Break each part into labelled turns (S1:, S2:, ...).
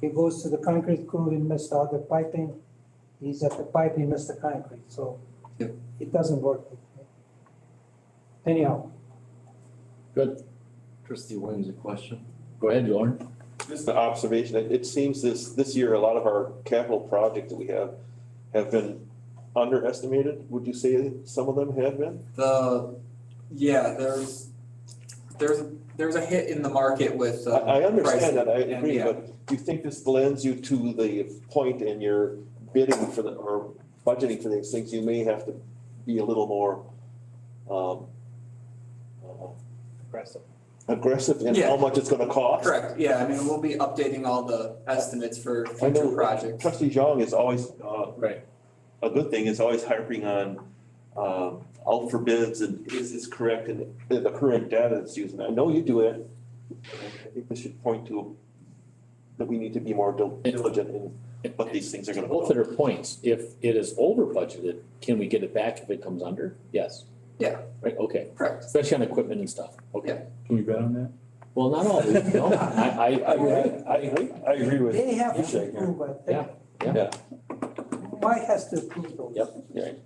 S1: He goes to the concrete crew, he missed out the piping. He's at the pipe, he missed the concrete, so
S2: Yep.
S1: it doesn't work. Anyhow,
S2: Good. Trustee Williams, a question? Go ahead, Lauren.
S3: Just an observation, it, it seems this, this year, a lot of our capital projects that we have have been underestimated. Would you say some of them have been?
S4: The, yeah, there's, there's, there's a hit in the market with,
S3: I,
S4: uh.
S3: I understand that, I
S4: pricing, and
S3: agree,
S4: yeah.
S3: but you think this lends you to the point in your bidding for the, or budgeting for these things, you may have to be a little more, um, uh,
S5: Aggressive.
S3: aggressive in
S4: Yeah.
S3: how much it's gonna cost.
S4: Correct, yeah, I mean, we'll be updating all the estimates for
S3: I
S4: future
S3: know
S4: projects.
S3: Trustee Zhang is always, uh,
S2: Right.
S3: a good thing is always harping on, um, out for bids and is this correct and the the current data that's used. And I know you do it. I think this should point to that we need to be more dil- diligent in what these things are gonna
S2: Both
S3: cost.
S2: of their points, if it is over budgeted, can we get it back if it comes under? Yes.
S4: Yeah.
S2: Right, okay,
S4: Correct,
S2: especially on equipment and stuff, okay.
S5: Can you bet on that?
S2: Well, not all, no, I, I, I,
S5: I agree, I agree with.
S1: they have to
S5: Appreciate it, yeah.
S1: approve, I think.
S2: Yeah,
S3: yeah.
S1: Why has to approve those?
S2: Yep,
S3: right.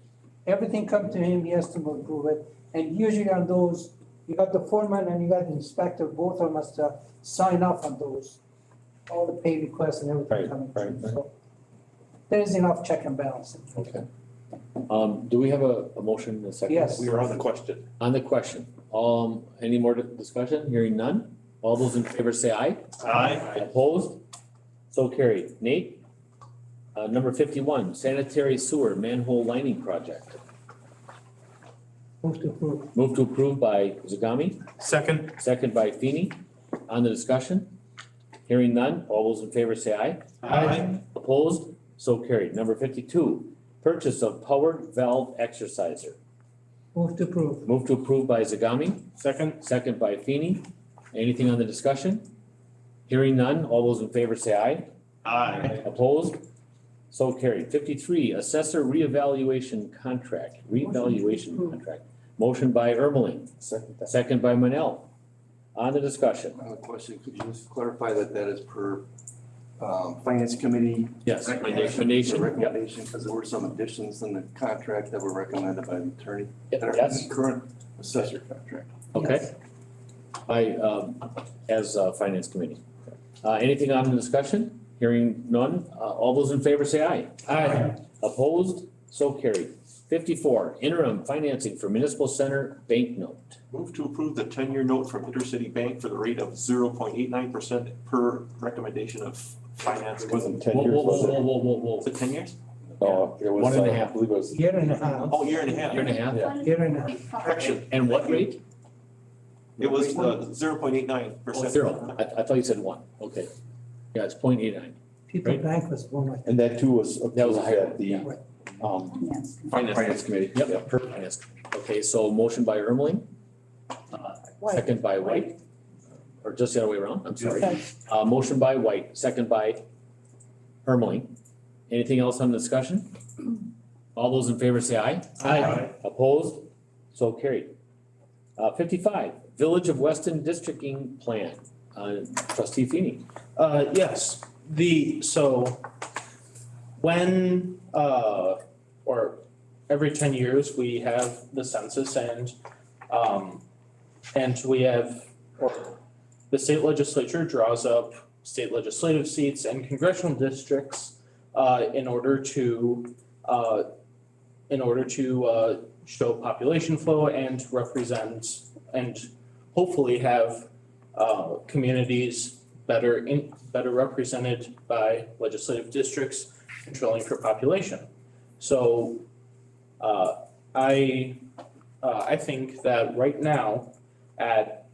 S1: Everything come to him, he has to approve it, and usually on those, you got the foreman and you got the inspector, both of them must uh, sign off on those. All the pay requests and everything
S5: Right,
S1: coming
S5: right,
S1: through,
S5: right.
S1: so. There's enough check and balance.
S2: okay. Um, do we have a, a motion and a second?
S1: Yes.
S3: We were on the question.
S2: On the question, um, any more di- discussion? Hearing none? All those in favor say aye. Opposed? So carried. Nate? Uh, number fifty-one, sanitary sewer manhole lining project.
S1: Move to approve.
S2: Move to approve by Zagami,
S5: Second.
S2: second by Feeny. On the discussion? Hearing none, all those in favor say aye.
S5: Aye.
S2: Opposed? So carried. Number fifty-two, purchase of powered valve exerciser.
S1: Move to approve.
S2: Move to approve by Zagami,
S5: Second.
S2: Second by Feeny. Anything on the discussion? Hearing none, all those in favor say aye.
S5: Aye.
S2: Opposed? So carried. Fifty-three, assessor reevaluation contract, reevaluation contract. Motion by Ermeling,
S3: Second.
S2: second by Manel. On the discussion,
S6: Uh, Question, could you just clarify that that is per um, Finance Committee?
S2: yes,
S6: the
S2: recommendation, yep,
S6: Recommendation, because there were some additions in the contract that were recommended by the attorney.
S2: yep,
S6: that are in the
S2: yes,
S6: Current assessor contract.
S2: okay. By, um, as, uh, finance committee. Uh, anything on the discussion? Hearing none, uh, all those in favor say aye.
S5: Aye.
S2: Opposed? So carried. Fifty-four, interim financing for municipal center bank note.
S3: Move to approve the ten-year note from Intercity Bank for the rate of zero point eight nine percent per recommendation of finance.
S6: It wasn't
S2: Whoa, whoa, whoa, whoa, whoa, whoa,
S3: Was it ten years?
S7: Uh,
S2: whoa. One and a half,
S1: Year and a half,
S3: Oh, year and a half.
S2: year and a half?
S1: year and a half.
S3: Correction,
S2: And what rate?
S3: it was the zero point eight nine percent.
S2: Oh, zero. I, I thought you said one. Okay. Yeah, it's point eight nine.
S1: People
S2: Right.
S1: Bank was one of them.
S7: And that too was
S2: That was
S7: approved
S2: a higher
S7: at
S2: one,
S7: the
S2: yeah.
S7: um
S3: Finance.
S7: finance committee.
S2: Yep, per finance. Okay, so motion by Ermeling, uh, second by White, or just the other way around, I'm sorry.
S1: Okay.
S2: Uh, motion by White, second by Ermeling. Anything else on the discussion? All those in favor say aye.
S5: Aye.
S2: Opposed? So carried. Uh, fifty-five, Village of Weston Districting Plan, uh, trustee Feeny.
S5: Uh, yes, the, so when, uh, or every ten years, we have the census and, um, and we have, or the state legislature draws up state legislative seats and congressional districts, uh, in order to, uh, in order to, uh, show population flow and represent and hopefully have, uh, communities better in, better represented by legislative districts controlling for population. So, uh, I, uh, I think that right now at,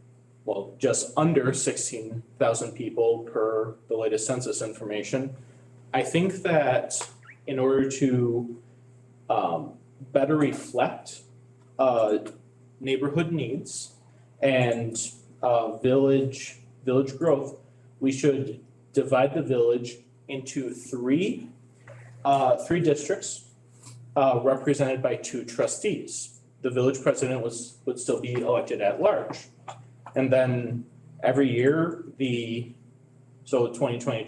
S5: well, just under sixteen thousand people per the latest census information, I think that in order to, um, better reflect, uh, neighborhood needs and, uh, village, village growth, we should divide the village into three, uh, three districts, uh, represented by two trustees. The village president was, would still be elected at large. And then every year, the, so twenty twenty